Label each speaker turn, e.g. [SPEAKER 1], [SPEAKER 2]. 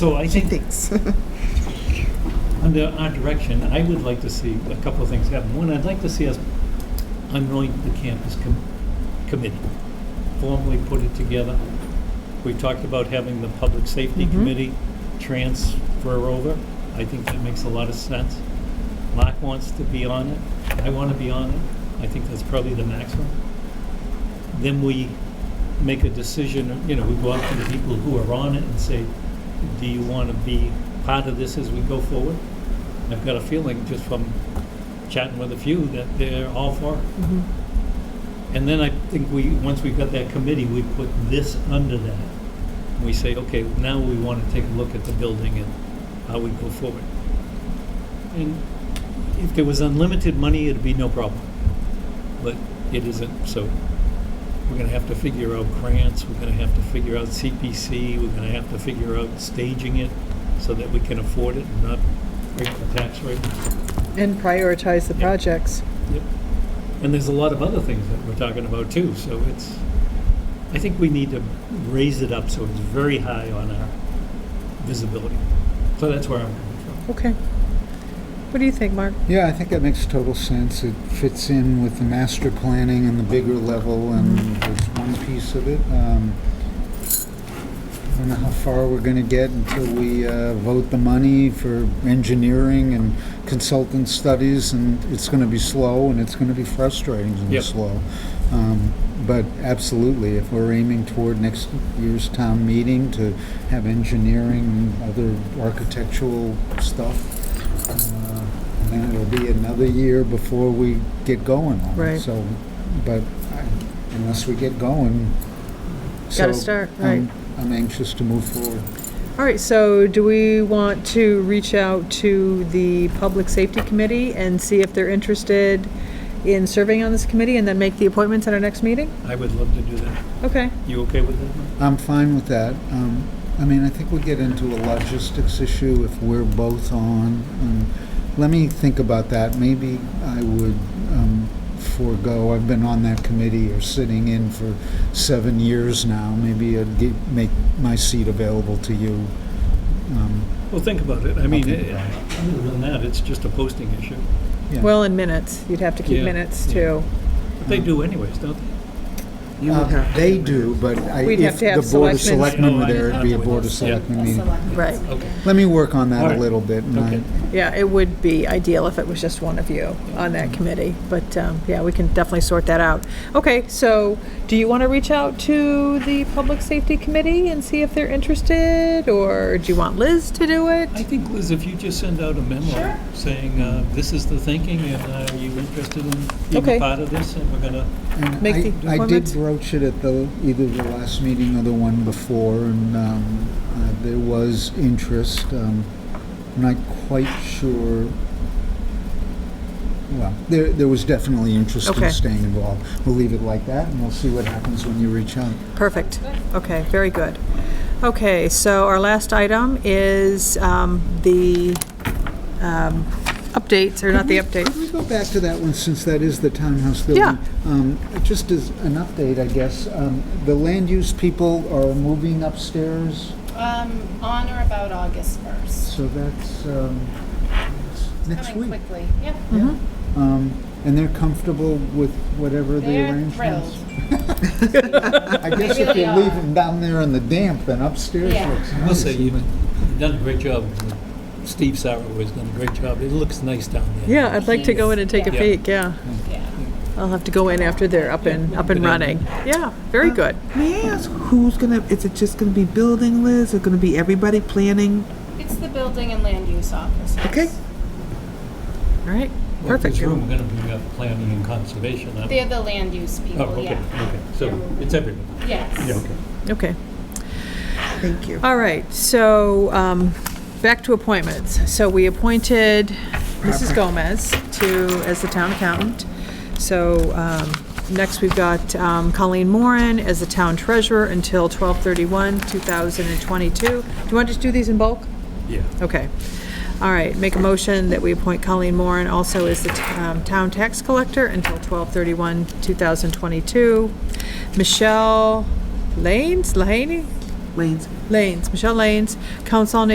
[SPEAKER 1] So I think
[SPEAKER 2] Thanks.
[SPEAKER 1] under our direction, I would like to see a couple of things happen. One, I'd like to see us anoint the campus com- committee, formally put it together. We talked about having the public safety
[SPEAKER 2] Mhm.
[SPEAKER 1] committee transfer over. I think that makes a lot of sense. Mark wants to be on it. I want to be on it. I think that's probably the maximum. Then we make a decision, you know, we go out to the people who are on it and say, do you want to be part of this as we go forward? And I've got a feeling just from chatting with a few that they're all for it.
[SPEAKER 2] Mhm.
[SPEAKER 1] And then I think we, once we've got that committee, we put this under that. We say, okay, now we want to take a look at the building and how we go forward. And if there was unlimited money, it'd be no problem. But it isn't, so we're gonna have to figure out grants, we're gonna have to figure out CPC, we're gonna have to figure out staging it so that we can afford it and not break the tax rate.
[SPEAKER 2] And prioritize the
[SPEAKER 1] Yeah.
[SPEAKER 2] projects.
[SPEAKER 1] Yep. And there's a lot of other things that we're talking about too, so it's, I think we need to raise it up so it's very high on our visibility. So that's where I'm coming from.
[SPEAKER 2] Okay. What do you think, Mark?
[SPEAKER 3] Yeah, I think that makes total sense. It fits in with the master planning and the bigger level, and that's one piece of it. Um, I don't know how far we're going to get until we uh, vote the money for engineering and consultant studies, and it's going to be slow, and it's going to be frustrating and
[SPEAKER 1] Yep.
[SPEAKER 3] slow. Um, But absolutely, if we're aiming toward next year's town meeting to have engineering, and other architectural stuff, uh, and then it'll be another year before we get going on it.
[SPEAKER 2] Right.
[SPEAKER 3] So, but I- unless we get going.
[SPEAKER 2] Gotta
[SPEAKER 3] so um,
[SPEAKER 2] start,
[SPEAKER 3] I'm-
[SPEAKER 2] right.
[SPEAKER 3] I'm anxious to move forward.
[SPEAKER 2] All right, so do we want to reach out to the Public Safety Committee and see if they're interested in serving on this committee and then make the appointments at our next meeting?
[SPEAKER 1] I would love to do that.
[SPEAKER 2] Okay,
[SPEAKER 1] You okay with that? Mike?
[SPEAKER 3] I'm fine with that. Um, I mean, I think we get into a logistics issue if we're both on. Um, Let me think about that. Maybe I would um, forego, I've been on that committee or sitting in for seven years now. Maybe I'd gi- make my seat available to you. Um,
[SPEAKER 1] Well, think about it. I mean,
[SPEAKER 3] think
[SPEAKER 1] eh,
[SPEAKER 3] about
[SPEAKER 1] other than that, it's just a posting issue.
[SPEAKER 3] yeah.
[SPEAKER 2] well, in minutes, you'd have to keep
[SPEAKER 1] Yeah,
[SPEAKER 2] minutes
[SPEAKER 1] yeah.
[SPEAKER 2] too.
[SPEAKER 1] But they do anyways, don't they?
[SPEAKER 4] You would
[SPEAKER 3] Uh,
[SPEAKER 4] have to
[SPEAKER 3] They
[SPEAKER 4] have
[SPEAKER 3] do, but I-
[SPEAKER 2] We'd have
[SPEAKER 3] if
[SPEAKER 2] to have
[SPEAKER 3] the Board of
[SPEAKER 2] selectmen.
[SPEAKER 3] Selectmen were
[SPEAKER 1] Oh, I-
[SPEAKER 3] there, it'd be a
[SPEAKER 1] okay.
[SPEAKER 3] Board of
[SPEAKER 1] Yeah.
[SPEAKER 3] Selectmen meeting.
[SPEAKER 2] Right.
[SPEAKER 1] Okay.
[SPEAKER 3] Let me work on
[SPEAKER 1] All
[SPEAKER 3] that
[SPEAKER 1] right.
[SPEAKER 3] a little bit. and I-
[SPEAKER 1] Okay.
[SPEAKER 2] Yeah, it would be ideal if it was just one of you on that committee, but um, yeah, we can definitely sort that out. Okay, so do you want to reach out to the Public Safety Committee and see if they're interested, or do you want Liz to do
[SPEAKER 1] I
[SPEAKER 2] it?
[SPEAKER 1] think, Liz, if you just send out a memo saying, uh, this is the thinking, and uh, are you interested in being
[SPEAKER 2] Okay.
[SPEAKER 1] part of this, and we're gonna,
[SPEAKER 3] And
[SPEAKER 2] Make
[SPEAKER 3] I-
[SPEAKER 2] the
[SPEAKER 3] I
[SPEAKER 2] appointments?
[SPEAKER 3] did broach it at the, either the last meeting or the one before, and um, uh, there was interest. um, I'm not quite sure, well, there, there was definitely interest
[SPEAKER 2] Okay.
[SPEAKER 3] in staying involved. We'll leave it like that, and we'll see what happens when you reach out.
[SPEAKER 2] Perfect. Okay, very good. Okay, so our last item is um, the um, updates, or not the update.
[SPEAKER 3] Could we go back to that one, since that is the townhouse building?
[SPEAKER 2] Yeah.
[SPEAKER 3] Um, Just as an update, I guess, um, the land use people are moving upstairs,
[SPEAKER 5] Um, on or about August 1st.
[SPEAKER 3] so that's um, that's next
[SPEAKER 5] Coming
[SPEAKER 3] week.
[SPEAKER 5] quickly, yeah.
[SPEAKER 3] Yeah. Um, And they're comfortable with whatever the
[SPEAKER 5] They're
[SPEAKER 3] arrangements?
[SPEAKER 5] thrilled.
[SPEAKER 3] I guess
[SPEAKER 5] They
[SPEAKER 3] if you
[SPEAKER 5] really
[SPEAKER 3] leave
[SPEAKER 5] are.
[SPEAKER 3] them down there in the damp, then upstairs
[SPEAKER 5] Yeah.
[SPEAKER 3] looks nice.
[SPEAKER 1] I'll say you- you've done a great job. Steve Sauer has done a great job. It looks nice down there.
[SPEAKER 2] Yeah, I'd like to go in and take a
[SPEAKER 1] Yeah.
[SPEAKER 2] peek, yeah.
[SPEAKER 5] Yeah.
[SPEAKER 2] I'll have to go in after they're up and, up and
[SPEAKER 1] Good idea.
[SPEAKER 2] running. Yeah, very good.
[SPEAKER 4] May I ask who's gonna? Is it just gonna be building, Liz? Is it gonna be everybody planning?
[SPEAKER 5] It's the building and land use officers.
[SPEAKER 4] Okay.
[SPEAKER 2] All right,
[SPEAKER 1] Well, if
[SPEAKER 2] perfect.
[SPEAKER 1] This room, we're gonna be uh, planning and conservation. aren't we?
[SPEAKER 5] They're the land use
[SPEAKER 1] Oh,
[SPEAKER 5] people,
[SPEAKER 1] okay,
[SPEAKER 5] yeah.
[SPEAKER 1] okay. So it's everybody.
[SPEAKER 5] Yes.
[SPEAKER 1] Yeah, okay.
[SPEAKER 2] Okay,
[SPEAKER 4] Thank you.
[SPEAKER 2] all right, so um, back to appointments. So we appointed Mrs. Gomez to, as the town accountant. So um, next, we've got um, Colleen Moran as the town treasurer until 12/31, 2022. Do you want to just do these in bulk?
[SPEAKER 1] Yeah.
[SPEAKER 2] Okay. All right, make a motion that we appoint Colleen Moran also as the t- um, town tax collector until 12/31, 2022. Michelle Lanes, Lahaney?
[SPEAKER 4] Lanes.
[SPEAKER 2] Lanes, Michelle Lanes, council on